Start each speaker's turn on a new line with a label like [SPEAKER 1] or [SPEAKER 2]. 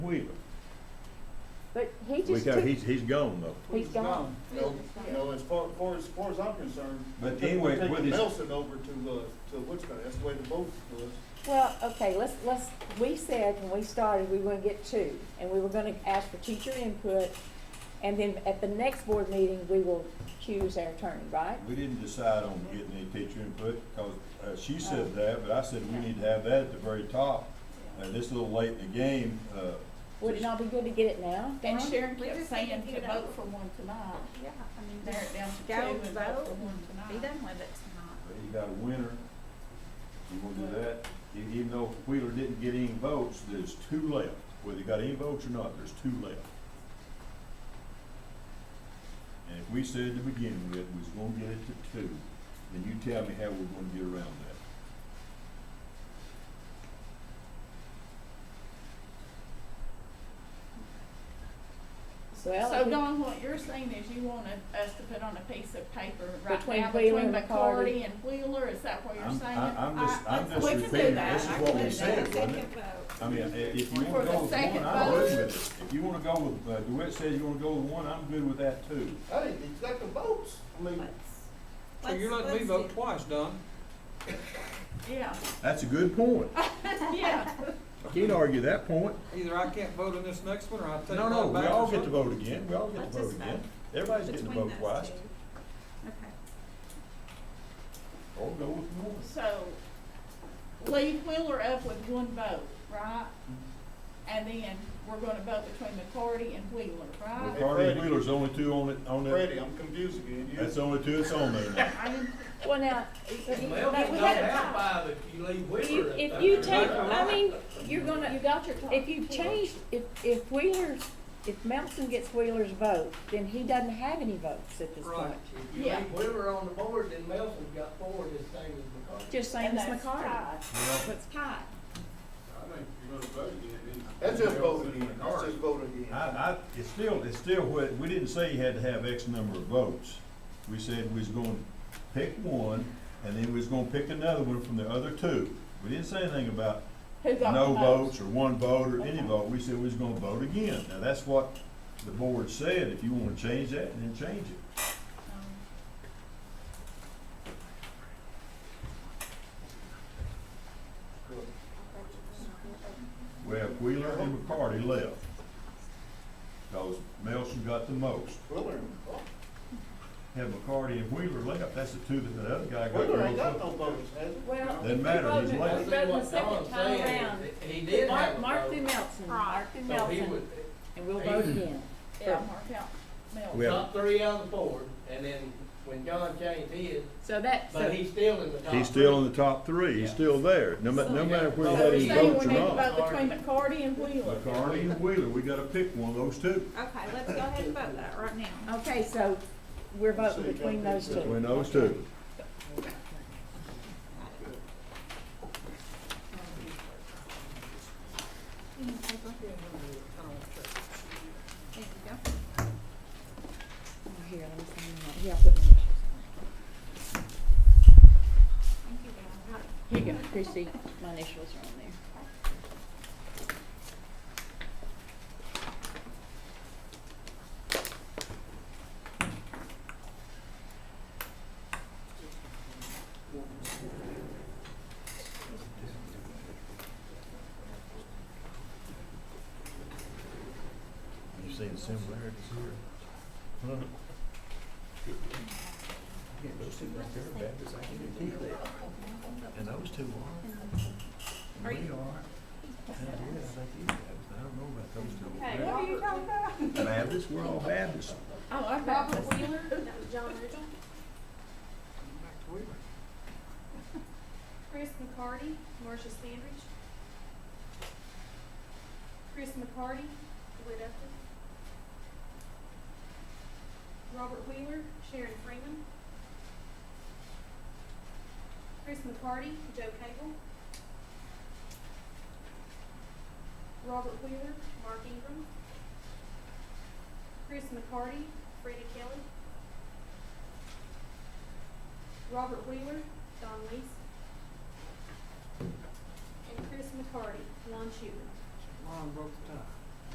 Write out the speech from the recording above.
[SPEAKER 1] Wheeler.
[SPEAKER 2] But he
[SPEAKER 3] We
[SPEAKER 2] just
[SPEAKER 3] got,
[SPEAKER 2] took,
[SPEAKER 3] he's, he's gone though.
[SPEAKER 2] he's gone.
[SPEAKER 1] No, no, as far, far as, far as I'm concerned.
[SPEAKER 4] But
[SPEAKER 1] we're taking-
[SPEAKER 4] anyway,
[SPEAKER 1] we're taking
[SPEAKER 4] what is-
[SPEAKER 1] Nelson over to, uh, to Woodstock, that's the way the vote was.
[SPEAKER 2] Well, okay, let's, let's, we said when we started, we were gonna get two, and we were gonna ask for teacher input, and then at the next board meeting, we will choose our attorney, right?
[SPEAKER 4] We didn't decide on getting any teacher input, because uh,
[SPEAKER 2] Oh.
[SPEAKER 4] she said that, but I said we need to have that at the very top. Uh, This little late in the game, uh,
[SPEAKER 2] Would it not be good to get it now?
[SPEAKER 5] And
[SPEAKER 2] Dawn?
[SPEAKER 5] Sharon
[SPEAKER 6] We
[SPEAKER 5] kept
[SPEAKER 6] just need to
[SPEAKER 5] saying
[SPEAKER 6] get
[SPEAKER 5] to
[SPEAKER 6] it
[SPEAKER 5] vote
[SPEAKER 6] over.
[SPEAKER 5] for one tonight.
[SPEAKER 6] Yeah, I mean,
[SPEAKER 5] Narrow it
[SPEAKER 6] just
[SPEAKER 5] down to
[SPEAKER 6] go
[SPEAKER 5] two and vote
[SPEAKER 6] vote
[SPEAKER 5] for one
[SPEAKER 6] and be
[SPEAKER 5] tonight.
[SPEAKER 6] done with it tonight.
[SPEAKER 4] but you got a winner. You want to do that? E- Even though Wheeler didn't get any votes, there's two left. Whether you got any votes or not, there's two left. And if we said to begin with, we was gonna get it to two, then you tell me how we're gonna get around that.
[SPEAKER 2] Well, if
[SPEAKER 5] So
[SPEAKER 2] we-
[SPEAKER 5] Dawn, what you're saying is you wanted us to put on a piece of paper right
[SPEAKER 2] Between
[SPEAKER 5] now
[SPEAKER 2] Wheeler
[SPEAKER 5] between
[SPEAKER 2] and McCarty.
[SPEAKER 5] McCarty and Wheeler, is that what you're
[SPEAKER 4] I'm-
[SPEAKER 5] saying?
[SPEAKER 4] I- I'm just-
[SPEAKER 5] I-
[SPEAKER 4] I'm just
[SPEAKER 5] we can do
[SPEAKER 4] repeating
[SPEAKER 5] that.
[SPEAKER 4] this is
[SPEAKER 5] I
[SPEAKER 4] what
[SPEAKER 5] can
[SPEAKER 4] we
[SPEAKER 5] do
[SPEAKER 4] said,
[SPEAKER 5] that.
[SPEAKER 4] wasn't it?
[SPEAKER 6] Second vote.
[SPEAKER 4] I mean, i- if you
[SPEAKER 5] For
[SPEAKER 4] wanna
[SPEAKER 5] the
[SPEAKER 4] go with one,
[SPEAKER 5] second
[SPEAKER 4] I'm good
[SPEAKER 5] vote.
[SPEAKER 4] with it. If you wanna go with, uh, DeWitt says you wanna go with one, I'm good with that too.
[SPEAKER 1] Hey, he's got the votes, I mean,
[SPEAKER 6] Let's-
[SPEAKER 7] So you're
[SPEAKER 6] let's-
[SPEAKER 7] letting me
[SPEAKER 6] let's
[SPEAKER 7] vote
[SPEAKER 6] do-
[SPEAKER 7] twice, Don.
[SPEAKER 5] Yeah,
[SPEAKER 3] That's a good point.
[SPEAKER 5] yeah.
[SPEAKER 3] I Can't argue that point.
[SPEAKER 7] Either I can't vote on this next one, or I'll take it
[SPEAKER 3] No, no, we
[SPEAKER 7] back
[SPEAKER 3] all
[SPEAKER 7] or
[SPEAKER 3] get to
[SPEAKER 7] something.
[SPEAKER 3] vote again. We all get
[SPEAKER 6] Let's
[SPEAKER 3] to vote
[SPEAKER 6] just
[SPEAKER 3] again.
[SPEAKER 6] vote
[SPEAKER 3] Everybody's getting to vote
[SPEAKER 6] between those
[SPEAKER 3] twice.
[SPEAKER 6] two. Okay.
[SPEAKER 3] Or go with one.
[SPEAKER 5] So leave Wheeler up with one vote, right? And then we're gonna vote between McCarty and Wheeler, right?
[SPEAKER 3] McCarty and Wheeler's the only two on it, on it.
[SPEAKER 1] Freddie, I'm confused again, you.
[SPEAKER 3] That's the only two that's on there now.
[SPEAKER 5] I am-
[SPEAKER 2] Well, now,
[SPEAKER 8] Well,
[SPEAKER 2] But
[SPEAKER 8] it's
[SPEAKER 2] we
[SPEAKER 8] not
[SPEAKER 2] had a
[SPEAKER 8] out
[SPEAKER 2] tie.
[SPEAKER 8] five if you leave Wheeler
[SPEAKER 2] you-
[SPEAKER 8] up
[SPEAKER 2] if
[SPEAKER 8] there.
[SPEAKER 2] you take, I mean, you're gonna,
[SPEAKER 5] you got your top.
[SPEAKER 2] if you change, if, if Wheeler's, if Melton gets Wheeler's vote, then he doesn't have any votes at this
[SPEAKER 7] Right.
[SPEAKER 2] point.
[SPEAKER 8] If you
[SPEAKER 5] Yeah.
[SPEAKER 8] leave Wheeler on the board, then Nelson's got four, his same as McCarthy.
[SPEAKER 2] Just same
[SPEAKER 5] And
[SPEAKER 2] as
[SPEAKER 5] that's
[SPEAKER 2] McCarty.
[SPEAKER 5] tied.
[SPEAKER 6] What's pie?
[SPEAKER 1] That's just vote again, that's just vote
[SPEAKER 4] I,
[SPEAKER 1] again.
[SPEAKER 4] I, it's still, it's still, what- we didn't say you had to have X number of votes. We said we was gonna pick one, and then we was gonna pick another one from the other two. We didn't say anything about
[SPEAKER 5] Who got
[SPEAKER 4] no
[SPEAKER 5] the votes?
[SPEAKER 4] votes or one vote or any
[SPEAKER 5] Okay.
[SPEAKER 4] vote. We said we was gonna vote again. Now, that's what the board said. If you wanna change that, then change it.
[SPEAKER 5] Um,
[SPEAKER 4] We have Wheeler and McCarty left. Cause Melson got the most.
[SPEAKER 1] Wheeler, and-
[SPEAKER 4] Have McCarty and Wheeler left, that's the two that the other guy got. the
[SPEAKER 1] Wheeler ain't got
[SPEAKER 4] most.
[SPEAKER 1] no votes, has he?
[SPEAKER 2] Well.
[SPEAKER 4] Doesn't matter, he's
[SPEAKER 2] voted-
[SPEAKER 4] late.
[SPEAKER 2] we voted the
[SPEAKER 8] That's what
[SPEAKER 2] second
[SPEAKER 8] Don's
[SPEAKER 2] time
[SPEAKER 8] saying.
[SPEAKER 2] around.
[SPEAKER 8] He did
[SPEAKER 2] Mark-
[SPEAKER 8] have a
[SPEAKER 2] Mark
[SPEAKER 8] vote.
[SPEAKER 2] through Melson,
[SPEAKER 6] Right.
[SPEAKER 2] Mark through
[SPEAKER 8] So he
[SPEAKER 2] Melson,
[SPEAKER 8] would,
[SPEAKER 2] and we'll vote again.
[SPEAKER 5] Yeah, mark out Melton.
[SPEAKER 3] Well-
[SPEAKER 8] top three on the board, and then when John changed his,
[SPEAKER 2] So that,
[SPEAKER 8] but
[SPEAKER 2] so,
[SPEAKER 8] he's still in the top.
[SPEAKER 4] He's still in
[SPEAKER 8] three.
[SPEAKER 4] the top three, he's still there, no ma- no matter where he
[SPEAKER 5] So
[SPEAKER 4] had
[SPEAKER 5] we're
[SPEAKER 4] his
[SPEAKER 5] saying
[SPEAKER 4] votes
[SPEAKER 5] we
[SPEAKER 4] or
[SPEAKER 5] need to
[SPEAKER 4] not.
[SPEAKER 5] vote between McCarty and Wheeler.
[SPEAKER 4] McCarty and Wheeler, we gotta pick one of those two.
[SPEAKER 6] Okay, let's go ahead and vote that right now.
[SPEAKER 2] okay, so we're
[SPEAKER 1] So you
[SPEAKER 2] voting
[SPEAKER 1] got
[SPEAKER 2] between those
[SPEAKER 1] this, uh,
[SPEAKER 2] two.
[SPEAKER 4] Between those two.
[SPEAKER 6] You need paper? There you go.
[SPEAKER 2] Here, let me sign that. Yeah, I'll put mine.
[SPEAKER 6] Thank you, guys.
[SPEAKER 2] Here you go, Christie, my initials are on there.
[SPEAKER 4] You seeing similarities here? Those two right there are Baptists, I guarantee you that. And those two are. And we are. And yeah, I think he's Baptist. I don't know about those two.
[SPEAKER 5] Okay, what are you talking about?
[SPEAKER 4] Baptists, we're all Baptists.
[SPEAKER 5] Oh, I'm
[SPEAKER 6] Robert
[SPEAKER 5] Baptist.
[SPEAKER 6] Wheeler, that was John Mitchell. Chris McCarty, Marcia Sandridge. Chris McCarty, DeWitt Upton. Robert Wheeler, Sharon Freeman. Chris McCarty, Joe Cagle. Robert Wheeler, Mark Ingram. Chris McCarty, Freda Kelly. Robert Wheeler, Don Lees. And Chris McCarty, Lon Shuler.
[SPEAKER 7] Ron broke the tie.